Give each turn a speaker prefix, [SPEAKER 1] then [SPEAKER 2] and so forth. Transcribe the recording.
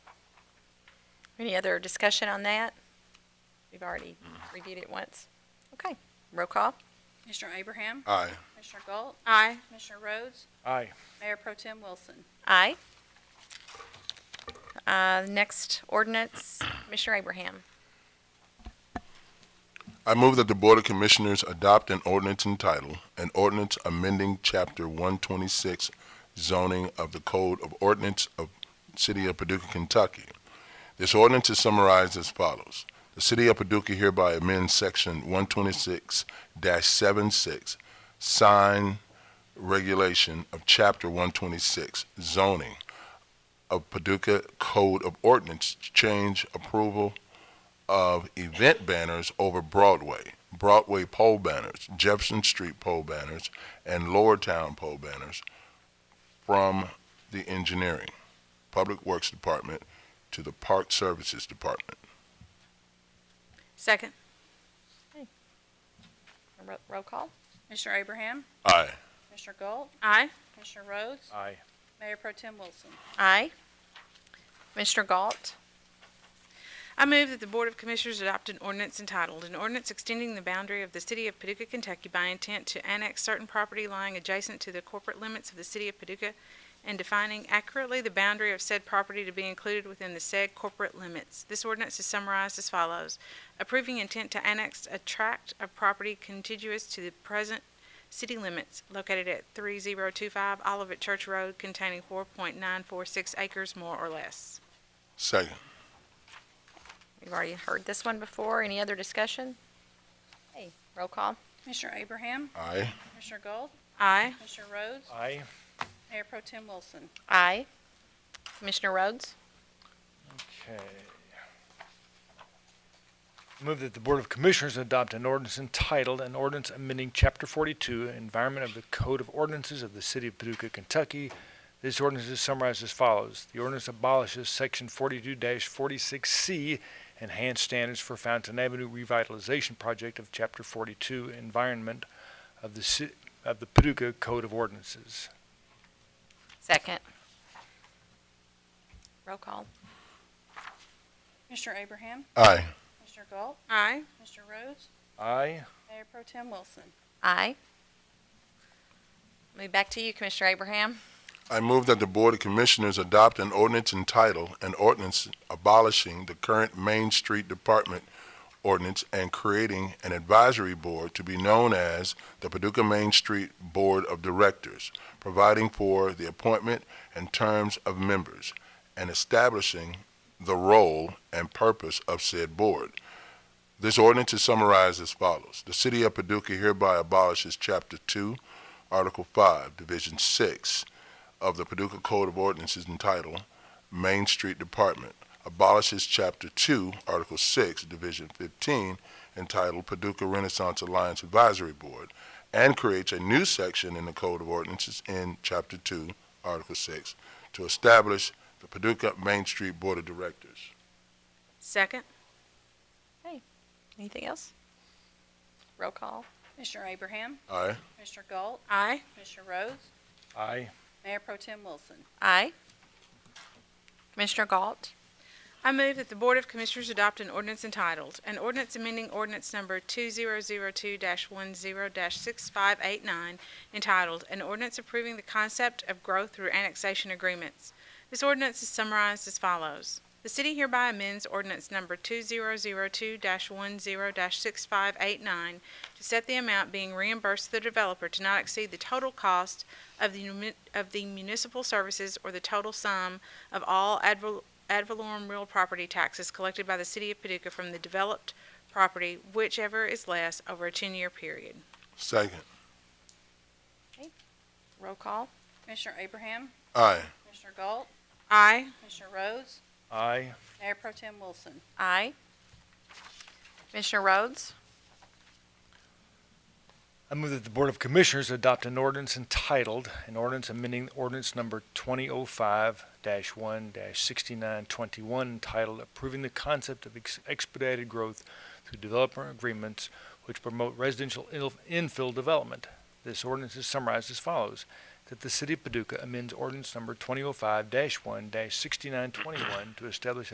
[SPEAKER 1] Any other discussion on that? We've already reviewed it once. Okay, roll call.
[SPEAKER 2] Commissioner Abraham?
[SPEAKER 3] Aye.
[SPEAKER 2] Commissioner Galt?
[SPEAKER 4] Aye.
[SPEAKER 2] Commissioner Rhodes?
[SPEAKER 5] Aye.
[SPEAKER 2] Mayor Pro Tem Wilson?
[SPEAKER 1] Aye. Uh, Next ordinance, Commissioner Abraham.
[SPEAKER 3] I move that the Board of Commissioners adopt an ordinance entitled, an ordinance amending Chapter 126 zoning of the Code of Ordinance of City of Paducah, Kentucky. This ordinance is summarized as follows. The City of Paducah hereby amends Section 126-76 sign regulation of Chapter 126 zoning of Paducah Code of Ordinance to change approval of event banners over Broadway, Broadway pole banners, Jefferson Street pole banners, and Lower Town pole banners from the engineering, Public Works Department to the Park Services Department.
[SPEAKER 4] Second.
[SPEAKER 1] Ro- Roll call.
[SPEAKER 2] Commissioner Abraham?
[SPEAKER 3] Aye.
[SPEAKER 2] Commissioner Galt?
[SPEAKER 4] Aye.
[SPEAKER 2] Commissioner Rhodes?
[SPEAKER 5] Aye.
[SPEAKER 2] Mayor Pro Tem Wilson?
[SPEAKER 1] Aye. Commissioner Galt.
[SPEAKER 4] I move that the Board of Commissioners adopt an ordinance entitled, an ordinance extending the boundary of the city of Paducah, Kentucky by intent to annex certain property lying adjacent to the corporate limits of the city of Paducah and defining accurately the boundary of said property to be included within the said corporate limits. This ordinance is summarized as follows. Approving intent to annex a tract of property contiguous to the present city limits located at three zero two five Olivet Church Road containing four point nine four six acres more or less.
[SPEAKER 3] Second.
[SPEAKER 1] We've already heard this one before. Any other discussion? Hey, roll call.
[SPEAKER 2] Commissioner Abraham?
[SPEAKER 3] Aye.
[SPEAKER 2] Commissioner Galt?
[SPEAKER 4] Aye.
[SPEAKER 2] Commissioner Rhodes?
[SPEAKER 5] Aye.
[SPEAKER 2] Mayor Pro Tem Wilson?
[SPEAKER 1] Aye. Commissioner Rhodes.
[SPEAKER 5] Okay. Move that the Board of Commissioners adopt an ordinance entitled, an ordinance amending Chapter 42, Environment of the Code of Ordinances of the City of Paducah, Kentucky. This ordinance is summarized as follows. The ordinance abolishes Section 42-46C, Enhanced Standards for Fountain Avenue Revitalization Project of Chapter 42, Environment of the, Ci- of the Paducah Code of Ordinances.
[SPEAKER 1] Second. Roll call.
[SPEAKER 2] Commissioner Abraham?
[SPEAKER 3] Aye.
[SPEAKER 2] Commissioner Galt?
[SPEAKER 4] Aye.
[SPEAKER 2] Commissioner Rhodes?
[SPEAKER 5] Aye.
[SPEAKER 2] Mayor Pro Tem Wilson?
[SPEAKER 1] Aye. Move back to you, Commissioner Abraham.
[SPEAKER 3] I move that the Board of Commissioners adopt an ordinance entitled, an ordinance abolishing the current Main Street Department ordinance and creating an advisory board to be known as the Paducah Main Street Board of Directors, providing for the appointment and terms of members, and establishing the role and purpose of said board. This ordinance is summarized as follows. The City of Paducah hereby abolishes Chapter Two, Article Five, Division Six, of the Paducah Code of Ordinances entitled Main Street Department abolishes Chapter 2, Article 6, Division 15, entitled Paducah Renaissance Alliance Advisory Board, and creates a new section in the Code of Ordinances in Chapter 2, Article 6, to establish the Paducah Main Street Board of Directors.
[SPEAKER 4] Second.
[SPEAKER 1] Anything else? Roll call.
[SPEAKER 2] Commissioner Abraham?
[SPEAKER 3] Aye.
[SPEAKER 2] Commissioner Galt?
[SPEAKER 4] Aye.
[SPEAKER 2] Commissioner Rhodes?
[SPEAKER 5] Aye.
[SPEAKER 2] Mayor Pro Tem Wilson?
[SPEAKER 1] Aye. Commissioner Galt.
[SPEAKER 4] I move that the Board of Commissioners adopt an ordinance entitled, an ordinance amending ordinance number 2002-10-6589, entitled, an ordinance approving the concept of growth through annexation agreements. This ordinance is summarized as follows. The city hereby amends ordinance number 2002-10-6589 to set the amount being reimbursed to the developer to not exceed the total cost of the muni- of the municipal services or the total sum of all ad val- ad valorem real property taxes collected by the city of Paducah from the developed property, whichever is less, over a ten-year period.
[SPEAKER 3] Second.
[SPEAKER 1] Roll call.
[SPEAKER 2] Commissioner Abraham?
[SPEAKER 3] Aye.
[SPEAKER 2] Commissioner Galt?
[SPEAKER 4] Aye.
[SPEAKER 2] Commissioner Rhodes?
[SPEAKER 5] Aye.
[SPEAKER 2] Mayor Pro Tem Wilson?
[SPEAKER 1] Aye. Commissioner Rhodes.
[SPEAKER 5] I move that the Board of Commissioners adopt an ordinance entitled, an ordinance amending ordinance number 2005-1-6921 entitled approving the concept of ex- expedited growth through developer agreements which promote residential il- infill development. This ordinance is summarized as follows, that the oh City of Paducah amends ordinance number 2005-1-6921 to establish